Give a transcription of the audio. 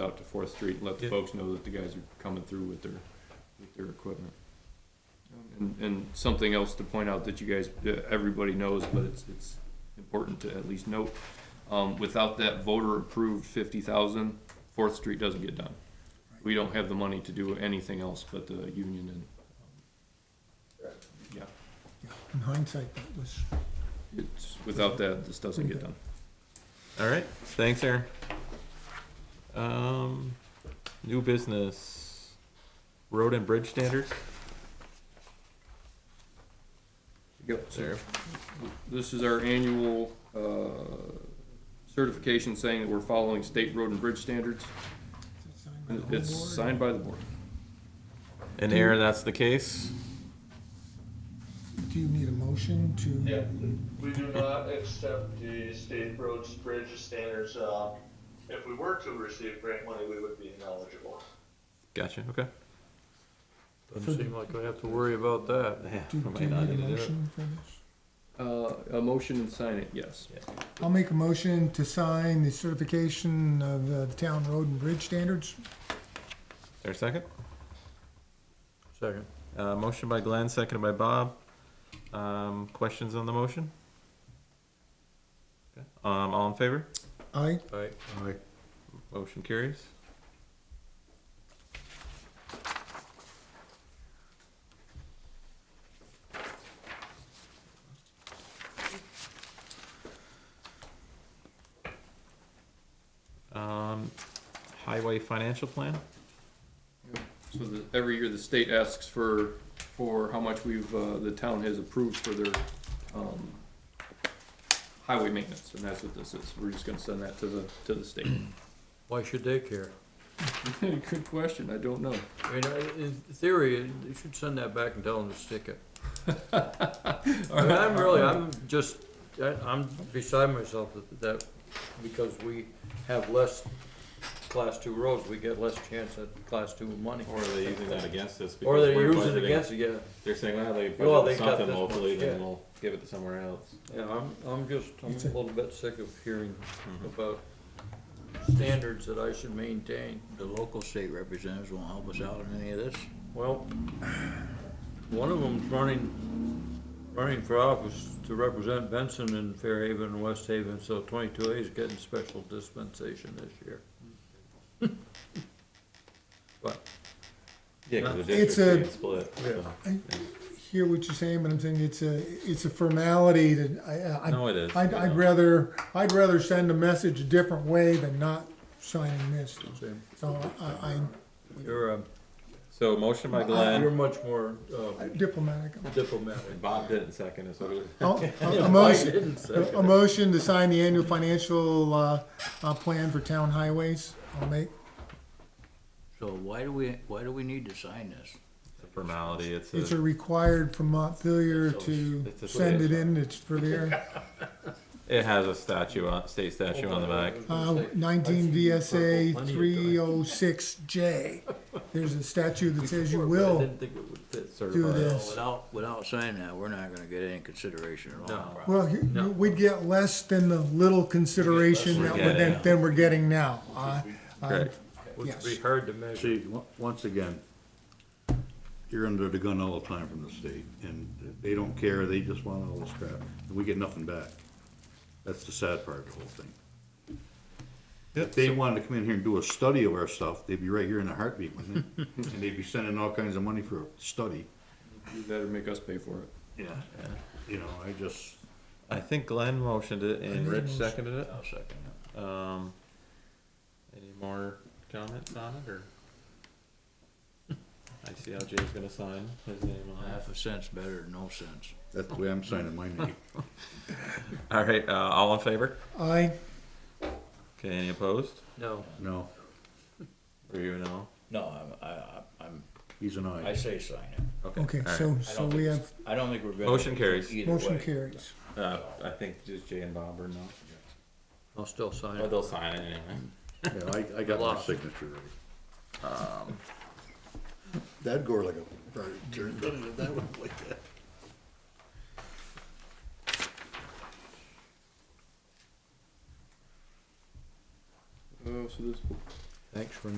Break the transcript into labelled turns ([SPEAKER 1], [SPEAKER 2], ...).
[SPEAKER 1] out to Fourth Street and let the
[SPEAKER 2] Yeah.
[SPEAKER 1] folks know that the guys are coming through with their, with their equipment. And, and something else to point out that you guys, that everybody knows, but it's, it's important to at least note. Um, without that voter-approved fifty thousand, Fourth Street doesn't get done. We don't have the money to do anything else but the union and, um, yeah,
[SPEAKER 3] In hindsight, that was,
[SPEAKER 1] it's, without that, this doesn't get done.
[SPEAKER 2] All right, thanks, Aaron. Um, new business, road and bridge standards.
[SPEAKER 1] Yep.
[SPEAKER 2] There,
[SPEAKER 1] This is our annual uh, certification saying that we're following state road and bridge standards.
[SPEAKER 3] is it signed by the
[SPEAKER 1] And
[SPEAKER 3] whole
[SPEAKER 1] It's
[SPEAKER 3] board?
[SPEAKER 1] signed by the board.
[SPEAKER 2] and Aaron, that's the case.
[SPEAKER 3] Do you need a motion
[SPEAKER 4] Yeah,
[SPEAKER 3] to,
[SPEAKER 4] we do not accept the state roads, bridges, standards. uh, If we were to receive grant money, we would be ineligible.
[SPEAKER 2] Gotcha. Okay.
[SPEAKER 5] Doesn't seem like I have to worry about that.
[SPEAKER 2] Yeah,
[SPEAKER 3] do
[SPEAKER 2] we
[SPEAKER 3] do
[SPEAKER 2] might
[SPEAKER 3] you
[SPEAKER 2] not
[SPEAKER 3] need
[SPEAKER 2] need to
[SPEAKER 3] a
[SPEAKER 2] do it.
[SPEAKER 3] motion for this?
[SPEAKER 1] Uh, A motion and sign it, yes.
[SPEAKER 3] I'll make a motion to sign the certification of uh, the town road and bridge standards.
[SPEAKER 2] There a second?
[SPEAKER 5] Second.
[SPEAKER 2] Uh, motion by Glenn, seconded by Bob. Um, questions on the motion? Okay. Um, all in favor?
[SPEAKER 3] Aye,
[SPEAKER 5] Aye. Aye.
[SPEAKER 2] Motion carries. Um, highway financial plan?
[SPEAKER 1] So the, every year the state asks for, for how much we've, uh, the town has approved for their, um, highway maintenance, and that's what this is. We're just gonna send that to the, to the state.
[SPEAKER 5] Why should they care?
[SPEAKER 1] Good question, I don't know.
[SPEAKER 5] I mean, I- in theory, they should send that back and tell them to stick it. I mean, I'm really, I'm just, I, I'm beside myself that, that, because we have less class two roads, we get less chance at class two money.
[SPEAKER 2] Or are they using that against us?
[SPEAKER 5] Or
[SPEAKER 2] because
[SPEAKER 5] they
[SPEAKER 2] we're
[SPEAKER 5] use it
[SPEAKER 2] budgeting-
[SPEAKER 5] against, you, yeah,
[SPEAKER 2] They're saying, well, they
[SPEAKER 5] Well,
[SPEAKER 2] budgeted
[SPEAKER 5] they got
[SPEAKER 2] something
[SPEAKER 5] this much,
[SPEAKER 2] locally, then
[SPEAKER 5] yeah.
[SPEAKER 2] we'll give it to somewhere else.
[SPEAKER 5] yeah, I'm, I'm just, I'm a
[SPEAKER 3] It's a-
[SPEAKER 5] little bit sick of hearing
[SPEAKER 6] Mm-hmm.
[SPEAKER 2] Mhm.
[SPEAKER 5] about standards that I should maintain.
[SPEAKER 6] The local state representatives won't help us out on any of this?
[SPEAKER 5] Well, one of them's running, running for office to represent Benson in Fairhaven and West Haven, so twenty-two A is getting special dispensation this year. But,
[SPEAKER 2] Yeah, cause the
[SPEAKER 3] It's
[SPEAKER 2] district's
[SPEAKER 3] a-
[SPEAKER 2] being split, so.
[SPEAKER 3] I hear what you're saying, but I'm saying it's a, it's a formality that I, I.
[SPEAKER 2] No, it is.
[SPEAKER 3] I'd, I'd rather, I'd rather send a message a different way than not signing this.
[SPEAKER 5] Sam,
[SPEAKER 3] So I, I
[SPEAKER 5] you're, um,
[SPEAKER 2] So motion by
[SPEAKER 5] you're
[SPEAKER 2] Glenn,
[SPEAKER 5] much more uh,
[SPEAKER 3] I'm diplomatic.
[SPEAKER 5] diplomatic.
[SPEAKER 2] Bob didn't second it, so it was-
[SPEAKER 3] I'll- I'll-
[SPEAKER 5] Yeah,
[SPEAKER 3] A
[SPEAKER 5] Mike
[SPEAKER 3] motion,
[SPEAKER 5] didn't say.
[SPEAKER 3] A motion to sign the annual financial, uh, uh, plan for town highways, I'll make,
[SPEAKER 6] So why do we, why do we need to sign this?
[SPEAKER 2] it's a formality, it's
[SPEAKER 3] it's
[SPEAKER 2] a,
[SPEAKER 3] a required from Montpelier to
[SPEAKER 2] It's a-
[SPEAKER 3] send it in, it's for their,
[SPEAKER 2] it has a statue on, state statue on the back.
[SPEAKER 3] uh, nineteen VSA three oh six J. There's a statute that says you
[SPEAKER 5] I
[SPEAKER 3] will
[SPEAKER 5] didn't think it would fit.
[SPEAKER 3] do
[SPEAKER 6] So
[SPEAKER 3] this.
[SPEAKER 6] Without, without signing that, we're not gonna get any consideration at all.
[SPEAKER 5] No.
[SPEAKER 3] Well, you-
[SPEAKER 5] No.
[SPEAKER 3] we'd get less than the little consideration that we're, than, than we're getting now, uh, uh,
[SPEAKER 2] Great.
[SPEAKER 5] Which would be
[SPEAKER 3] Yes.
[SPEAKER 5] hard to measure.
[SPEAKER 7] See, on- once again, you're under the gun all the time from the state, and they don't care, they just want all this crap, and we get nothing back. That's the sad part of the whole thing. If they wanted to come in here and do a study of our stuff, they'd be right here in a heartbeat, wouldn't they? And they'd be sending all kinds of money for a study,
[SPEAKER 1] You better make us pay for it.
[SPEAKER 7] yeah, you know, I just,
[SPEAKER 2] I think Glenn motioned it and Rich seconded it.
[SPEAKER 6] I'll second that.
[SPEAKER 2] Um, any more comments on it, or? I see how Jay's gonna sign his name on it.
[SPEAKER 6] Half a cent's better than no sense.
[SPEAKER 7] that's the way I'm signing my name.
[SPEAKER 2] All right, uh, all in favor?
[SPEAKER 3] I,
[SPEAKER 2] Okay, any opposed?
[SPEAKER 5] No,
[SPEAKER 7] No,
[SPEAKER 2] Or you know?
[SPEAKER 6] No, I'm, I, I- I'm,
[SPEAKER 7] he's an
[SPEAKER 6] I
[SPEAKER 7] aye.
[SPEAKER 6] say sign it.
[SPEAKER 3] okay,
[SPEAKER 2] all right.
[SPEAKER 3] so,
[SPEAKER 6] I
[SPEAKER 3] so
[SPEAKER 6] don't
[SPEAKER 3] we
[SPEAKER 6] think-
[SPEAKER 3] have,
[SPEAKER 6] I don't think we're gonna.
[SPEAKER 2] Motion carries.
[SPEAKER 6] either
[SPEAKER 3] motion
[SPEAKER 6] way.
[SPEAKER 3] carries.
[SPEAKER 2] Uh, I think just Jay and Bob are no.
[SPEAKER 5] I'll still sign
[SPEAKER 2] But
[SPEAKER 5] it.
[SPEAKER 2] they'll sign it anyway.
[SPEAKER 7] Yeah, I, I got my
[SPEAKER 5] Lost.
[SPEAKER 7] signature ready. That'd go like a, that would like that.
[SPEAKER 1] Oh, so this,
[SPEAKER 6] Thanks for